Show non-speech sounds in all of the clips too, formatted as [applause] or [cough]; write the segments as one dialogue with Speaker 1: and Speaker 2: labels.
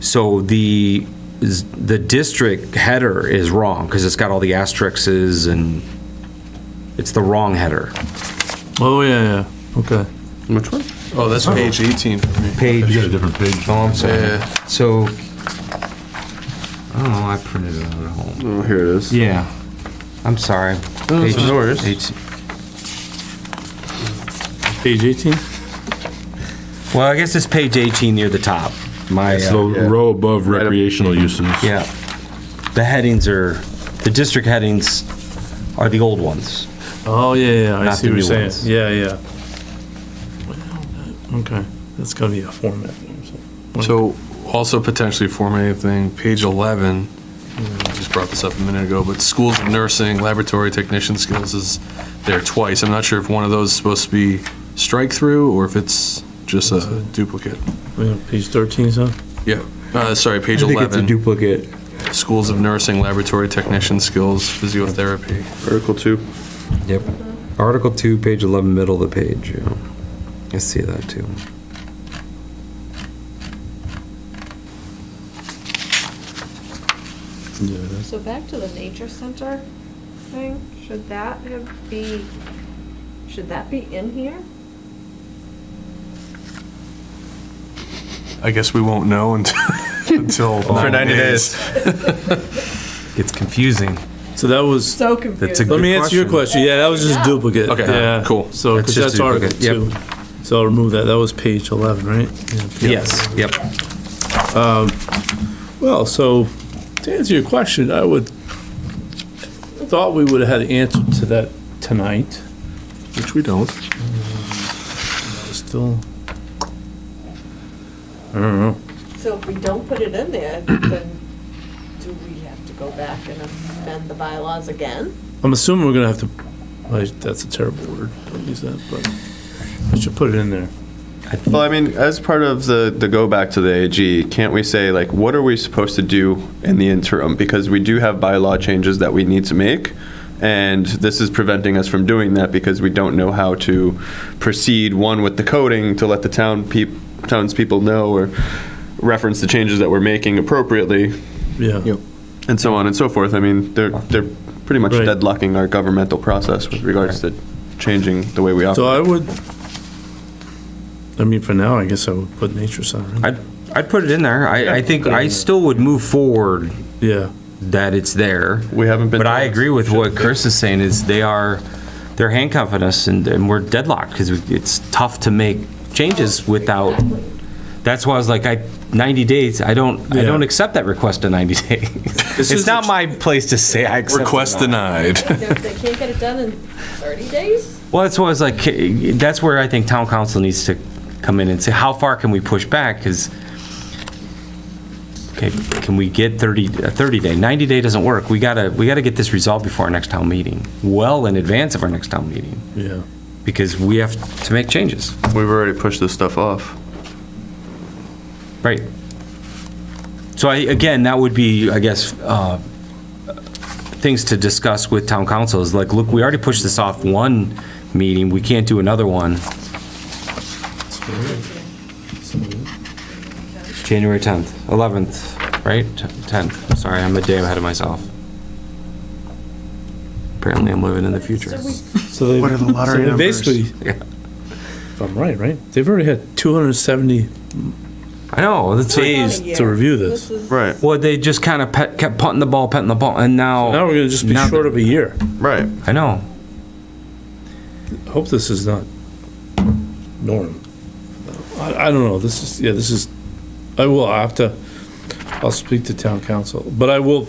Speaker 1: So the, the district header is wrong, because it's got all the asterisks and it's the wrong header.
Speaker 2: Oh, yeah, yeah, okay.
Speaker 3: Which one?
Speaker 4: Oh, that's page 18 for me.
Speaker 1: Page,
Speaker 5: You got a different page.
Speaker 3: Oh, I'm sorry.
Speaker 4: Yeah,
Speaker 1: so, oh, I printed it out at home.
Speaker 3: Oh, here it is.
Speaker 1: Yeah. I'm sorry.
Speaker 3: No, it's
Speaker 1: Page-
Speaker 3: no worries.
Speaker 1: page-
Speaker 2: Page 18?
Speaker 1: Well, I guess it's page 18 near the top. My,
Speaker 5: It's
Speaker 1: uh,
Speaker 5: the
Speaker 3: yeah.
Speaker 5: row above recreational uses.
Speaker 1: yeah. The headings are, the district headings are the old ones.
Speaker 2: Oh, yeah, yeah, I
Speaker 1: Not
Speaker 2: see
Speaker 1: the
Speaker 2: what
Speaker 1: new
Speaker 2: you're saying.
Speaker 1: ones.
Speaker 2: Yeah, yeah. Well, Okay, that's gotta be a format. thing, so-
Speaker 4: so
Speaker 6: Mm-hmm.
Speaker 4: also potentially Form A thing, page 11, I just brought this up a minute ago, but schools of nursing, laboratory technician skills is there twice. I'm not sure if one of those is supposed to be strike through or if it's just a duplicate.
Speaker 2: yeah, Page 13, so?
Speaker 4: Yeah, uh, sorry, page
Speaker 6: I think it's a
Speaker 4: 11,
Speaker 6: duplicate.
Speaker 4: schools of nursing, laboratory technician skills, physiotherapy.
Speaker 3: Article two.
Speaker 6: Yep. Article two, page eleven, middle of the page, yeah. I see that too.
Speaker 7: So back to the nature center thing, should that have be, should that be in here?
Speaker 4: I guess we won't know until, [laughs] until.
Speaker 3: For 90 days.
Speaker 1: It's confusing.
Speaker 2: So that was,
Speaker 7: So
Speaker 1: That's a
Speaker 2: let
Speaker 7: confusing.
Speaker 1: good
Speaker 2: me answer your question, yeah, that was just
Speaker 7: Yeah.
Speaker 2: duplicate.
Speaker 4: Okay,
Speaker 2: Yeah.
Speaker 4: cool.
Speaker 2: So,
Speaker 1: That's
Speaker 2: because
Speaker 1: just
Speaker 2: that's Article
Speaker 1: duplicate, yep.
Speaker 2: 2. So I'll remove that, that was page 11, right? Yeah, page
Speaker 1: Yes, yep.
Speaker 2: Well, so to answer your question, I would, thought we would have had an answer to that tonight.
Speaker 4: Which we don't.
Speaker 2: Still, I don't know.
Speaker 7: So if we don't put it in there, then do we have to go back and amend the bylaws again?
Speaker 2: I'm assuming we're gonna have to, like, that's a terrible word, don't use that, but I should put it in there.
Speaker 3: Well, I mean, as part of the, the go back to the AG, can't we say, like, what are we supposed to do in the interim? Because we do have bylaw changes that we need to make, and this is preventing us from doing that because we don't know how to proceed, one, with the coding to let the town peop, townspeople know or reference the changes that we're making appropriately,
Speaker 2: Yeah,
Speaker 3: and so on and so forth. I mean, they're, they're pretty much
Speaker 2: Right.
Speaker 3: deadlocking our governmental process with regards to changing the way we operate.
Speaker 2: so I would, I mean, for now, I guess I would put nature center in.
Speaker 1: I'd, I'd put it in there. I, I think I still would move forward
Speaker 2: Yeah,
Speaker 1: that it's there.
Speaker 3: We haven't been.
Speaker 1: But I
Speaker 3: told.
Speaker 1: agree with what Chris is saying, is they are, they're handcuffing us and, and we're deadlocked, because it's tough to make changes without, that's why I was like, I, 90 days, I don't, I
Speaker 2: Yeah.
Speaker 1: don't accept that request in 90 [laughs] days.
Speaker 2: is
Speaker 1: It's not my place to say I accept it.
Speaker 4: Request
Speaker 1: or not.
Speaker 7: [laughs]
Speaker 4: denied.
Speaker 7: If they can't get it done in thirty days?
Speaker 1: Well, that's why I was like, eh, that's where I think town council needs to come in and say, how far can we push back? Because, okay, can we get 30, a 30 day, 90 day doesn't work. We gotta, we gotta get this resolved before our next town meeting, well in advance of our next town meeting,
Speaker 2: yeah.
Speaker 1: because we have to make changes.
Speaker 3: We've already pushed this stuff off.
Speaker 1: Right. So I, again, that would be, I guess, uh, things to discuss with town council is like, look, we already pushed this off one meeting, we can't do another one. January 10th, 11th, right? 10th, sorry, I'm a day ahead of myself. Apparently I'm living in the future.
Speaker 7: So we
Speaker 2: So they,
Speaker 4: What are the
Speaker 2: [laughs]
Speaker 4: lottery
Speaker 2: so they
Speaker 4: numbers?
Speaker 2: Basically,
Speaker 1: Yeah.
Speaker 2: if I'm right, right, they've already had 270
Speaker 1: I know, that's,
Speaker 7: Jeez.
Speaker 2: to review this.
Speaker 7: is-
Speaker 3: Right,
Speaker 1: well, they just kind of kept putting the ball, putting the ball, and
Speaker 2: Now
Speaker 1: now,
Speaker 2: we're gonna just be
Speaker 1: Oh. Now that-
Speaker 2: short of a year.
Speaker 3: right.
Speaker 1: I know.
Speaker 2: I hope this is not norm. I, I don't know, this is, yeah, this is, I will, I have to, I'll speak to town council, but I will,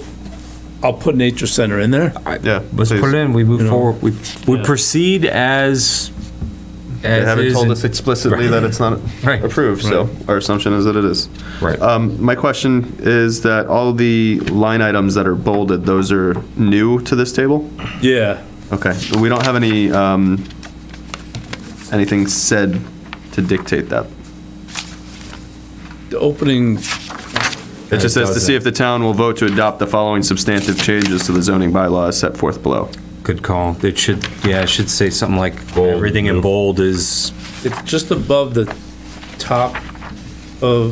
Speaker 2: I'll put nature center in there.
Speaker 3: Yeah.
Speaker 1: Let's
Speaker 3: please.
Speaker 1: put it in, we
Speaker 2: You
Speaker 1: move
Speaker 2: know.
Speaker 1: forward, we, we
Speaker 2: Yeah.
Speaker 1: proceed as.
Speaker 3: They
Speaker 1: as
Speaker 3: haven't
Speaker 1: is
Speaker 3: told
Speaker 1: and-
Speaker 3: us explicitly that it's not
Speaker 1: [laughs] Right.
Speaker 3: approved, so our assumption is that it is.
Speaker 1: Right.
Speaker 3: Um, my question is that all the line items that are bolded, those are new to this table?
Speaker 2: Yeah,
Speaker 3: Okay, we don't have any, um, anything said to dictate that.
Speaker 2: the opening,
Speaker 3: It just says to see if the town will vote to adopt the following substantive changes to the zoning bylaw as set forth below.
Speaker 1: Good call, it should, yeah, it should say something like, everything in bold is
Speaker 2: it's just above the top of